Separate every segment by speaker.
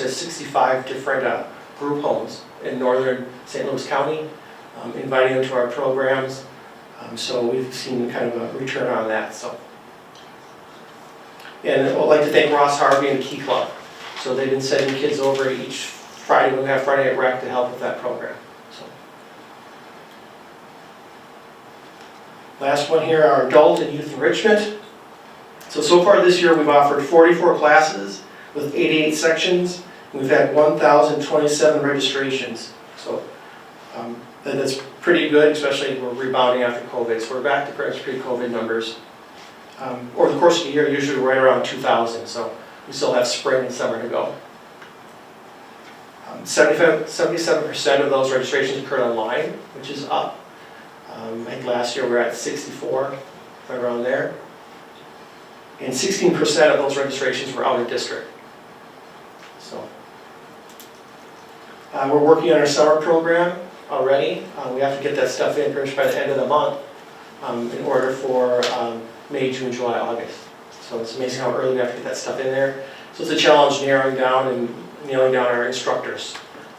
Speaker 1: to 65 different uh, group homes in northern St. Louis County, um, inviting them to our programs. Um, So we've seen kind of a return on that, so. And I'd like to thank Ross Harvey and the Key Club. So they've been sending kids over each Friday, when we have Friday at rec to help with that program, so. Last one here, our adult and youth enrichment. So, so far this year, we've offered 44 classes with 88 sections. and We've had 1,027 registrations. So um, that- that's pretty good, especially we're rebounding after COVID. So we're back to perhaps pre-COVID numbers. Um, Over the course of the year, usually we're right around 2,000, so we still have spring and summer to go. Um, 75 77% of those registrations occurred online, which is up. Um, I think last year we were at 64, right around there. And 16% of those registrations were out of district. So. Uh, We're working on our summer program already. Uh, We have to get that stuff in pretty much by the end of the month um, in order for um, May, June, July, August. So it's amazing how early we have to get that stuff in there. So it's a challenge narrowing down and nailing down our instructors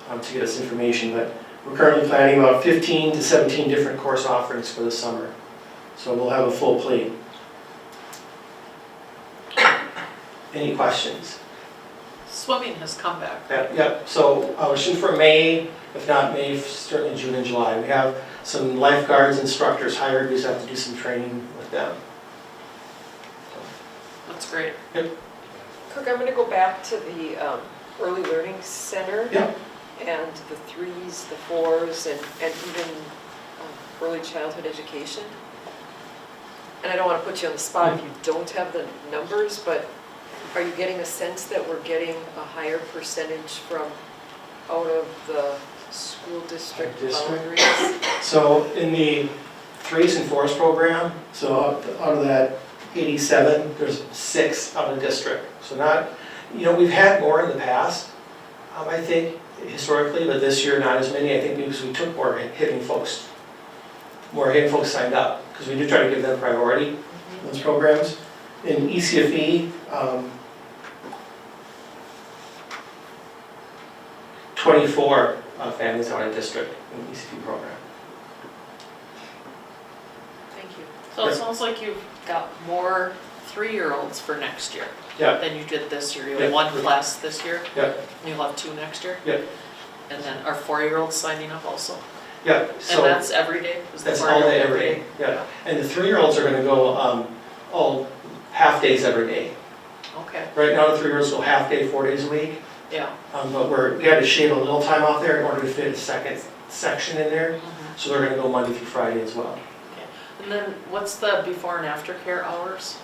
Speaker 1: um, to get us information. But we're currently planning about 15 to 17 different course offerings for the summer, so we'll have a full plate. Any questions?
Speaker 2: Swimming has come back.
Speaker 1: Yep, Yep, so uh, we're shooting for May, if not May, certainly June and July. We have some lifeguards, instructors hired, we just have to do some training with them.
Speaker 2: That's great.
Speaker 3: Kirk, I'm going to go back to the um, Early Learning Center.
Speaker 1: Yeah.
Speaker 3: And the threes, the fours, and, and even um, early childhood education. And I don't want to put you on the spot if you
Speaker 1: Mm-hmm.
Speaker 3: don't have the numbers, but are you getting a sense that we're getting a higher percentage from out of the school district
Speaker 1: District?
Speaker 3: boundaries?
Speaker 1: So in the threes and fours program, so out out of that 87, there's six out of district. So not, you know, we've had more in the past, um, I think, historically, but this year not as many, I think because we took more hit- hitting folks. More hitting folks signed up, because we do try to give them priority, in those programs. In E ECFE, um, 24 uh, families out of district in E the ECFE program.
Speaker 3: Thank you.
Speaker 2: So it sounds like you've got more three-year-olds for next year
Speaker 1: Yeah.
Speaker 2: than you did this year. You
Speaker 1: Yeah.
Speaker 2: had one class this year.
Speaker 1: Yeah.
Speaker 2: And you'll have two next year.
Speaker 1: Yeah.
Speaker 2: And then are four-year-olds signing up also?
Speaker 1: Yeah,
Speaker 2: And
Speaker 1: so
Speaker 2: that's every day? Is the
Speaker 1: that's all day,
Speaker 2: four-year-old
Speaker 1: every day, yeah. And the three-year-olds are gonna go, um, all half days every day.
Speaker 2: Okay,
Speaker 1: Right now, the three-year-olds go half day, four days a week,
Speaker 2: yeah.
Speaker 1: um, but we're, we had to shave a little time off there in order to fit a second section in there.
Speaker 2: Mhm.
Speaker 1: So they're gonna go Monday through Friday as well.
Speaker 2: And then what's the before and after care hours?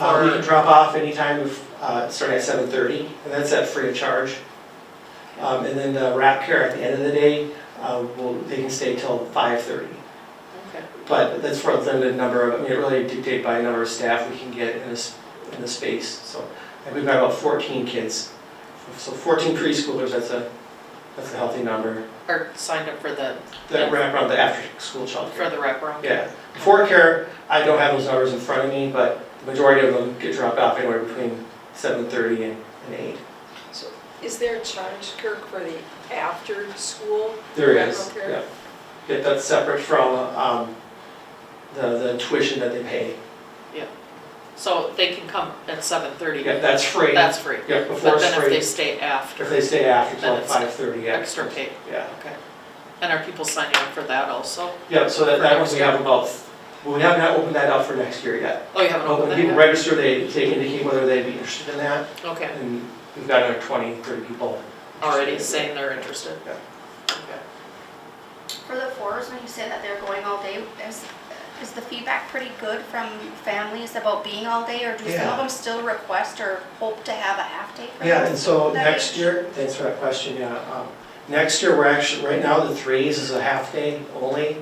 Speaker 1: Uh, we
Speaker 2: For-
Speaker 1: can drop off anytime, of, uh, starting at seven thirty, and that's at free of charge. Um, and then the wrap care at the end of the day, uh, will, they can stay till five thirty.
Speaker 2: Okay,
Speaker 1: But that's for a limited number of, I mean, it really dictated by the number of staff we can get in this, in the space, so. And we've got about fourteen kids, so fourteen preschoolers, that's a, that's a healthy number.
Speaker 2: or signed up for the,
Speaker 1: That wrap around the after-school
Speaker 2: for
Speaker 1: childcare.
Speaker 2: the wraparound?
Speaker 1: Yeah, before care, I don't have those numbers in front of me, but the majority of them get dropped off anywhere between seven thirty and, and eight.
Speaker 3: So is there a charge, Kirk, for the after-school?
Speaker 1: There is,
Speaker 3: Aftercare?
Speaker 1: yeah. Yeah, that's separate from, um, the, the tuition that they pay.
Speaker 2: So they can come at seven-thirty?
Speaker 1: Yeah, that's free.
Speaker 2: That's free.
Speaker 1: Yeah, before
Speaker 2: But
Speaker 1: it's
Speaker 2: then if
Speaker 1: free.
Speaker 2: they stay after,
Speaker 1: If they stay after
Speaker 2: Then
Speaker 1: till
Speaker 2: it's
Speaker 1: five thirty, yeah.
Speaker 2: extra pay?
Speaker 1: Yeah,
Speaker 2: Okay. And are people signing up for that also?
Speaker 1: yeah, so that, that one we have about, well, we have not opened that up for next year yet.
Speaker 2: Oh, you haven't
Speaker 1: But
Speaker 2: opened
Speaker 1: When
Speaker 2: that
Speaker 1: people
Speaker 2: yet?
Speaker 1: register, they, they indicate whether they'd be interested in that,
Speaker 2: Okay,
Speaker 1: and we've got another twenty, thirty people.
Speaker 2: already saying they're interested?
Speaker 1: Yeah.
Speaker 2: Okay.
Speaker 4: For the fours, when you say that they're going all day, is, is the feedback pretty good from families about being all day? Or do some
Speaker 1: Yeah.
Speaker 4: of them still request or hope to have a half day? for
Speaker 1: Yeah,
Speaker 4: them?
Speaker 1: and so
Speaker 4: That
Speaker 1: next
Speaker 4: age?
Speaker 1: year, thanks for that question, yeah. um, Next year, we're actually, right now, the threes is a half day only,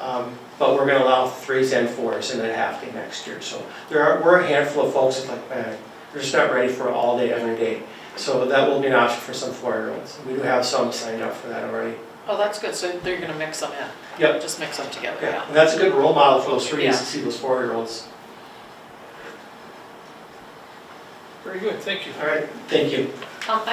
Speaker 1: um, but we're gonna allow threes and fours in a half day next year. So there are, we're a handful of folks that like, man, they're just not ready for all day, every day. So that will be an option for some four-year-olds. We do have some signed up for that already.
Speaker 2: Oh, that's good, so they're gonna mix them in?
Speaker 1: Yep.
Speaker 2: Just mix them together,
Speaker 1: Yeah,
Speaker 2: yeah.
Speaker 1: and that's a good role model for those
Speaker 2: Yeah.
Speaker 1: threes, to see those four-year-olds.
Speaker 5: Very good, thank you.
Speaker 1: All right, thank you.
Speaker 2: Um, I